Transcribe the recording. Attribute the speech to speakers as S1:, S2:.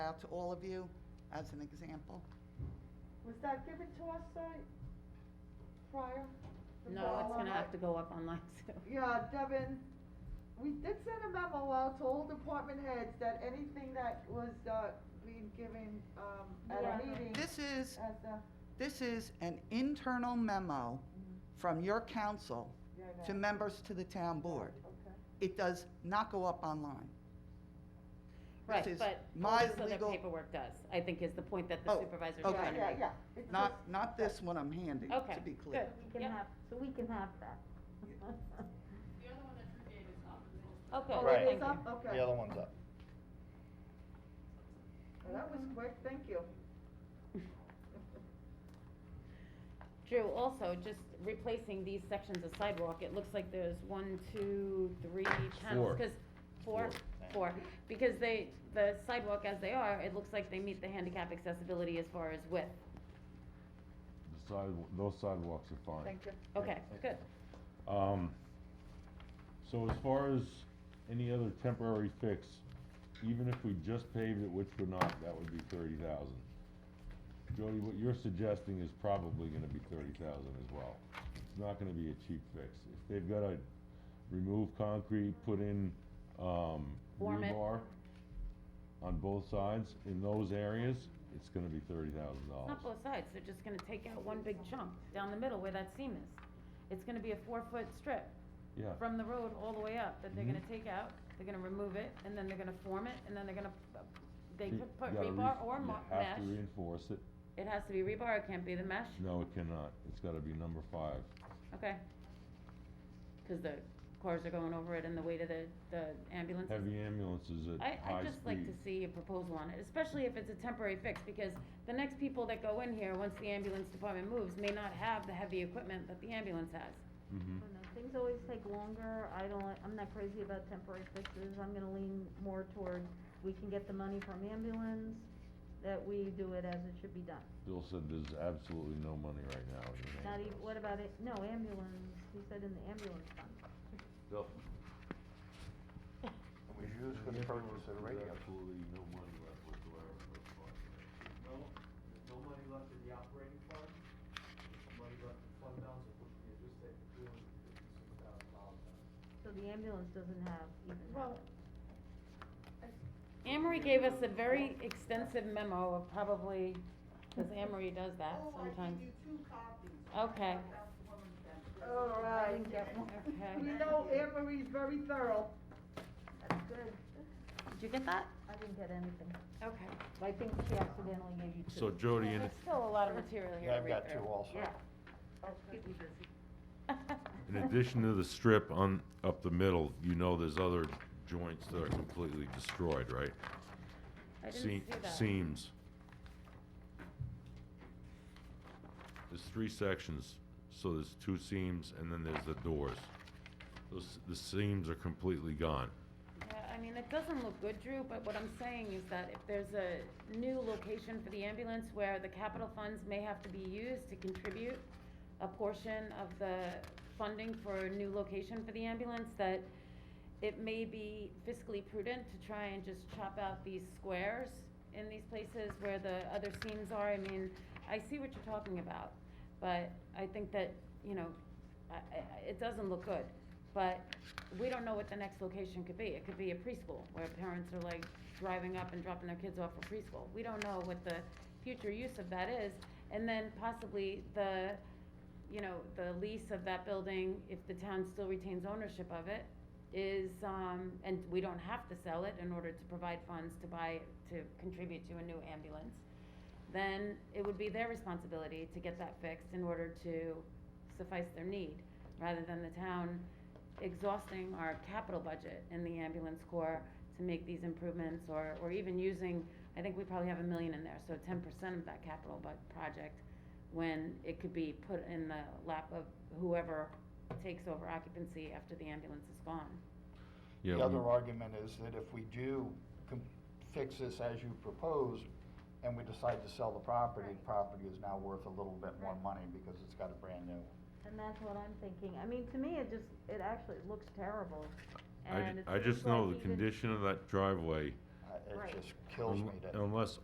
S1: out to all of you as an example?
S2: Was that given to us, uh, prior? The
S3: No, it's
S2: memo,
S3: gonna have
S2: right?
S3: to go up online soon.
S2: Yeah, Devin, we did send a memo out to all department heads that anything that was, uh, being given, um, at
S3: Yeah.
S2: a meeting as
S1: This is,
S2: a, Mm-hmm.
S1: this is an internal memo from your council
S2: yeah, I
S1: to
S2: know.
S1: members to the town board.
S2: Okay.
S1: It does not go up online. This
S3: Right,
S1: is
S3: but
S1: my
S3: most of the
S1: legal-
S3: paperwork does, I think is the point that the
S1: Oh,
S3: supervisor's
S1: okay.
S3: trying to
S2: Yeah,
S3: make.
S2: yeah, it's just,
S1: Not, not this one I'm handing,
S3: Okay,
S1: to be
S3: good.
S1: clear.
S4: We can
S3: Yep.
S4: have, so we can have that.
S5: The other one that Drew gave is up.
S3: Okay,
S2: oh,
S3: thank
S2: it
S3: you.
S2: is up, okay.
S6: The other one's up.
S2: Well, That was quick, thank you.
S3: Drew, also, just replacing these sections of sidewalk, it looks like there's one, two, three panels,
S7: Four.
S3: cause, four, four, because they, the sidewalk as they are, it looks like they meet the handicap accessibility as far as width.
S7: The sidewalk, those sidewalks are fine.
S2: Thank you.
S3: Okay, good.
S7: Um, so as far as any other temporary fix, even if we just paved it, which we're not, that would be thirty thousand. Jody, what you're suggesting is probably gonna be thirty thousand as well. It's not gonna be a cheap fix. If they've gotta remove concrete, put in, um,
S3: Form it.
S7: rebar on both sides, in those areas, it's gonna be thirty thousand
S3: It's
S7: dollars.
S3: not both sides, they're just gonna take out one big chunk down the middle where that seam is. It's gonna be a four-foot strip
S7: Yeah.
S3: from the road all the way up that they're
S7: Mhm.
S3: gonna take out, they're gonna remove it, and then they're gonna form it, and then they're gonna, p- they
S7: You
S3: could put
S7: gotta re-
S3: rebar or mo-
S7: You
S3: mesh.
S7: have to reinforce it.
S3: It has to be rebar, it can't be the mesh,
S7: No, it cannot. It's gotta be number five.
S3: okay? Cause the cars are going over it and the weight of the, the ambulances.
S7: Heavy ambulances at
S3: I, I'd
S7: high speed.
S3: just like to see a proposal on it, especially if it's a temporary fix, because the next people that go in here, once the ambulance department moves, may not have the heavy equipment that the ambulance has.
S7: Mhm.
S3: Hmm.
S4: I don't know, Things always take longer, I don't, I'm not crazy about temporary fixes, I'm gonna lean more toward, we can get the money from ambulance, that we do it as it should be done.
S7: Bill said there's absolutely no money right now in the
S4: Not even,
S7: ambulance.
S4: what about it, no, ambulance, he said in the ambulance fund.
S7: Bill?
S6: We use for the purchase of the radio.
S7: Absolutely no money left whatsoever for the fund.
S8: No, there's no money left in the operating fund, there's money left in fund balance, which we just take two hundred and fifty-six thousand dollars out.
S4: So the ambulance doesn't have even
S2: Well,
S4: that.
S3: Anne Marie gave us a very extensive memo of probably, cause Anne Marie does that sometimes. Okay,
S2: All right.
S3: okay.
S2: We know Anne Marie's very thorough.
S4: That's good.
S3: Did you get that?
S4: I didn't get anything,
S3: Okay.
S4: I think she accidentally gave you two.
S7: So Jody, and
S3: There's
S7: if,
S3: still a lot of material here
S6: Yeah,
S3: to
S6: I've got
S3: read
S6: two
S3: through.
S6: also.
S4: Yeah.
S7: in addition to the strip on, up the middle, you know there's other joints that are completely destroyed, right?
S3: I didn't see
S7: Se-
S3: that.
S7: Seams. There's three sections, so there's two seams and then there's the doors. Those, the seams are completely gone.
S3: Yeah, I mean, it doesn't look good, Drew, but what I'm saying is that if there's a new location for the ambulance where the capital funds may have to be used to contribute a portion of the funding for a new location for the ambulance, that it may be fiscally prudent to try and just chop out these squares in these places where the other seams are. I mean, I see what you're talking about, but I think that, you know, I, I, it doesn't look good. But we don't know what the next location could be. It could be a preschool where parents are like driving up and dropping their kids off for preschool. We don't know what the future use of that is. And then possibly the, you know, the lease of that building, if the town still retains ownership of it, is, um, and we don't have to sell it in order to provide funds to buy, to contribute to a new ambulance, then it would be their responsibility to get that fixed in order to suffice their need, rather than the town exhausting our capital budget in the ambulance corps to make these improvements, or, or even using, I think we probably have a million in there, so ten percent of that capital bu- project, when it could be put in the lap of whoever takes over occupancy after the ambulance is gone.
S7: Yeah,
S6: The
S7: we-
S6: other argument is that if we do com- fix this as you propose, and we decide to sell the property, the property is now worth a little bit more money because it's got a brand new.
S4: And that's what I'm thinking, I mean, to me, it just, it actually looks terrible,
S7: I,
S4: and
S7: ju-
S4: it
S7: I
S4: seems
S7: just know
S4: like
S7: the
S4: even-
S7: condition of that driveway
S6: I- uh, it
S3: Right.
S6: just kills
S7: Un-
S6: me that.
S7: Unless